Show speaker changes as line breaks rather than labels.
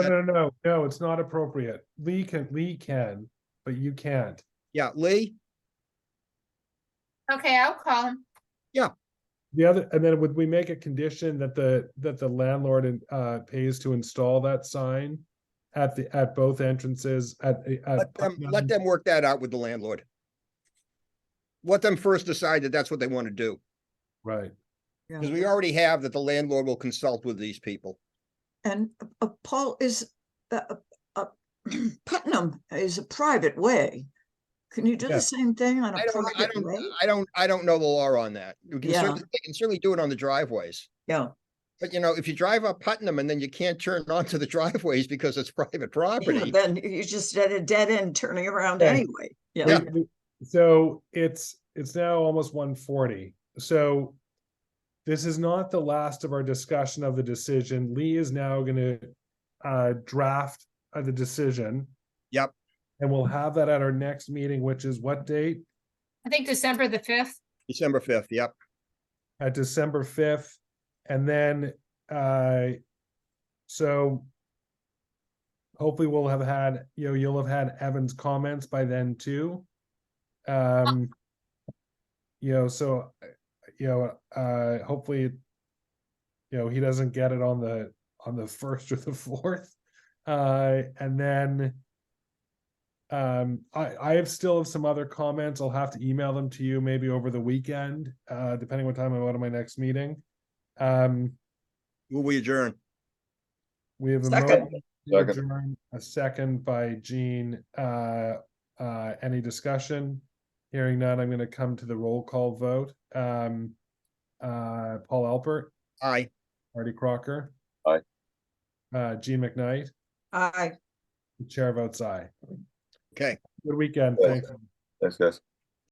No, no, no, no, it's not appropriate. Lee can, Lee can, but you can't.
Yeah, Lee,
Okay, I'll call him.
The other, and then would we make a condition that the, that the landlord and, uh, pays to install that sign? At the, at both entrances, at, at.
let them, let them work that out with the landlord. Let them first decide that that's what they want to do,
Right,
because we already have that the landlord will consult with these people.
And uh, uh, Paul is, uh, uh, uh, Putnam is a private way. Can you do
Yeah.
the same thing on
I
a
don't, I
private way?
don't, I don't, I don't know the law on that. We can
Yeah.
certainly, they can certainly do it on the driveways.
Yeah,
But you know, if you drive up Putnam and then you can't turn onto the driveways because it's private
yeah,
property,
then you're just at a dead end turning around
Yeah.
anyway. Yeah,
Yeah.
We- we- So it's, it's now almost one forty, so. This is not the last of our discussion of the decision. Lee is now gonna, uh, draft of the decision.
Yep.
And we'll have that at our next meeting, which is what date?
I think December the fifth.
December fifth, yep.
At uh, December fifth, and then, uh. So. Hopefully we'll have had, you know, you'll have had Evan's comments by then too. Um. You know, so, uh, you know, uh, hopefully. You know, he doesn't get it on the, on the first or the fourth, uh, and then. Um, I, I have still have some other comments. I'll have to email them to you maybe over the weekend, uh, depending what time I'm out of my next meeting. Um,
Will we adjourn?
we have a
Second.
motion to adjourn, a second by Gene. Uh, uh, any discussion? Hearing none, I'm gonna come to the roll call vote. Um, uh, Paul Alpert,
Aye.
Artie Crocker.
Aye.
Uh, Gene McKnight,
I,
the chair votes aye.
Okay.
Good weekend,
Yeah.
thanks.
Thanks, guys.